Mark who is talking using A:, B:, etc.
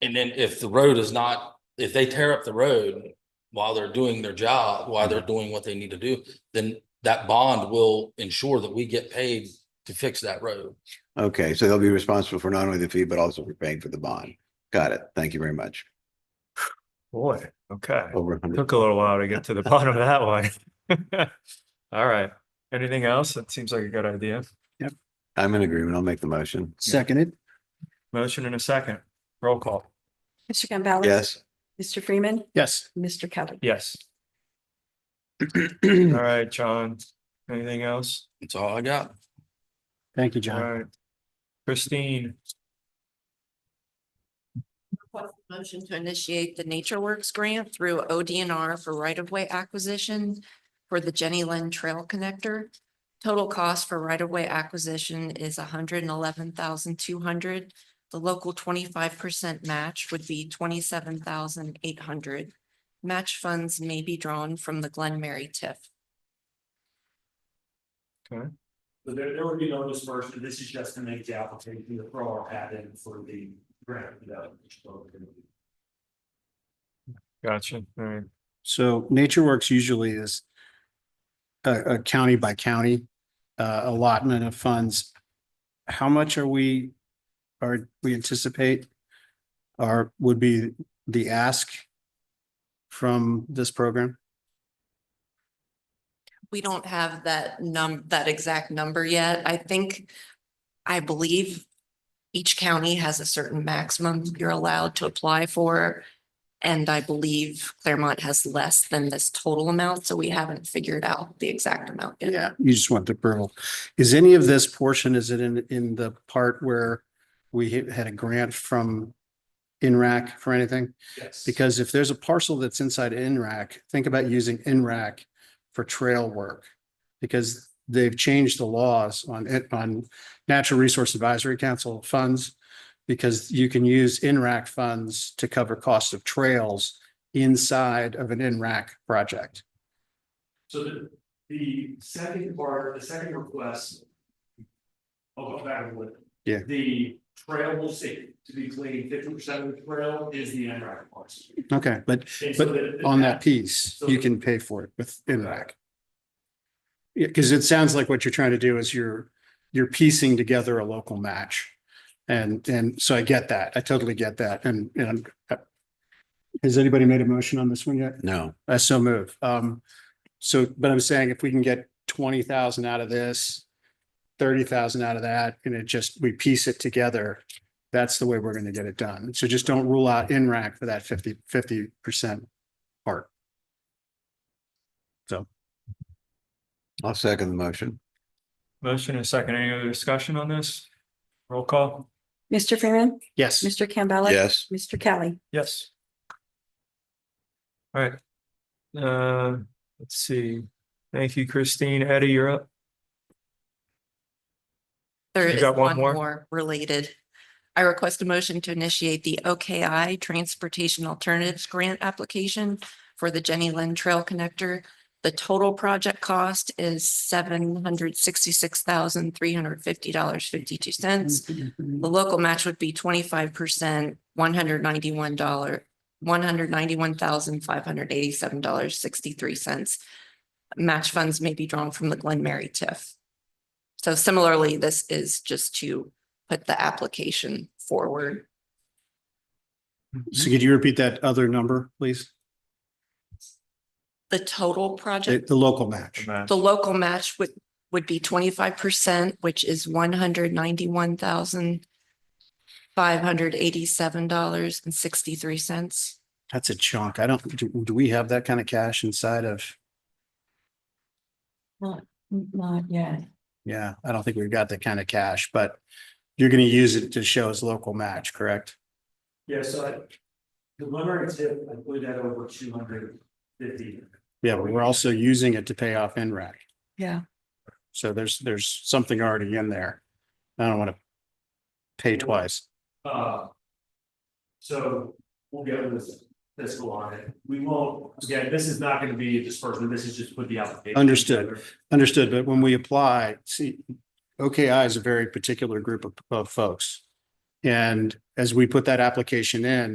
A: And then if the road is not, if they tear up the road while they're doing their job, while they're doing what they need to do, then that bond will ensure that we get paid to fix that road.
B: Okay, so they'll be responsible for not only the fee, but also for paying for the bond. Got it. Thank you very much.
C: Boy, okay.
B: Over a hundred.
C: Took a little while to get to the bottom of that one. All right. Anything else? That seems like a good idea.
B: I'm in agreement. I'll make the motion.
D: Seconded,
C: Motion in a second. Roll call.
E: Mr. Campbell.
B: Yes.
E: Mr. Freeman,
D: yes.
E: Mr. Kelly.
C: Yes. All
D: Thank
C: right, John. Anything else?
A: That's all I got.
D: you,
C: All
D: John.
C: right. Christine,
F: Motion to initiate the Nature Works grant through ODNR for right-of-way acquisition for the Jenny Lynn Trail Connector. Total cost for right-of-way acquisition is hundred and eleven thousand two hundred. The local twenty-five percent match would be twenty-seven thousand eight hundred. Match funds may be drawn from the Glen Mary TIF.
G: So there, there would be no dispersion, this is just to make the application, the pro or add in for the grant.
C: gotcha. All right.
D: So Nature Works usually is a, a county by county uh, allotment of funds. How much are we, are, we anticipate are, would be the ask from this program?
F: We don't have that num, that exact number yet. I think, I believe each county has a certain maximum you're allowed to apply for. And I believe Claremont has less than this total amount, so we haven't figured out the exact amount. yet.
D: Yeah, you just want the approval. Is any of this portion, is it in, in the part where we hit- had a grant from INRAC for anything?
G: Yes.
D: Because if there's a parcel that's inside NRAC, think about using NRAC for trail work. Because they've changed the laws on it, on Natural Resource Advisory Council funds. Because you can use NRAC funds to cover costs of trails inside of an NRAC project.
G: So the, the second part, the second request. I'll go back with. it.
D: Yeah.
G: The trail will see, to be clean, fifty percent of the trail is the end rack parts.
D: Okay, but But on that piece, you can pay for it with NRAC. Yeah, because it sounds like what you're trying to do is you're, you're piecing together a local match. And, and so I get that. I totally get that. And, and uh, has anybody made a motion on this one yet?
B: No.
D: I so move. Um, so, but I'm saying if we can get twenty thousand out of this, thirty thousand out of that, and it just, we piece it together, that's the way we're gonna get it done. So just don't rule out NRAC for that 50 percent part.
B: I'll second the motion.
C: Motion in a second. Any other discussion on this? Roll call.
E: Mr. Freeman,
D: Yes,
E: Mr. Campbell.
B: Yes.
E: Mr. Kelly.
C: Yes. All right. Uh, let's see. Thank you, Christine. Eddie, you're up.
F: There
C: You
F: is
C: got one more?
F: one more related. I request a motion to initiate the OKI Transportation Alternatives Grant Application for the Jenny Lynn Trail Connector. The total project cost is seven hundred sixty-six thousand, three hundred fifty dollars, fifty-two cents. The local match would be twenty-five percent, one hundred ninety-one dollar, one hundred ninety-one thousand, five hundred eighty-seven dollars, sixty-three cents. Match funds may be drawn from the Glen Mary TIF. So similarly, this is just to put the application forward.
D: so could you repeat that other number, please?
F: The total
D: The,
F: project,
D: the local match.
C: Matt.
F: the local match would, would be twenty-five percent, which is one hundred ninety-one thousand five hundred eighty-seven dollars and sixty-three cents.
D: That's a chunk. I don't, do, do we have that kind of cash inside of,
E: Not yet.
D: yeah, I don't think we've got that kind of cash, but you're gonna use it to show as local match, correct?
G: Yeah, so I. The preliminary tip, I put that over two hundred fifty.
D: Yeah, but we're also using it to pay off NRAC.
E: Yeah.
D: So there's, there's something already in there. I don't want to pay twice.
G: Uh. So we'll get this fiscal on it. We won't, again, this is not gonna be a disbursement. This is just put the application.
D: Understood.
G: together.
D: Understood, but when we apply, see, OKI is a very particular group of, of folks. And as we put that application in,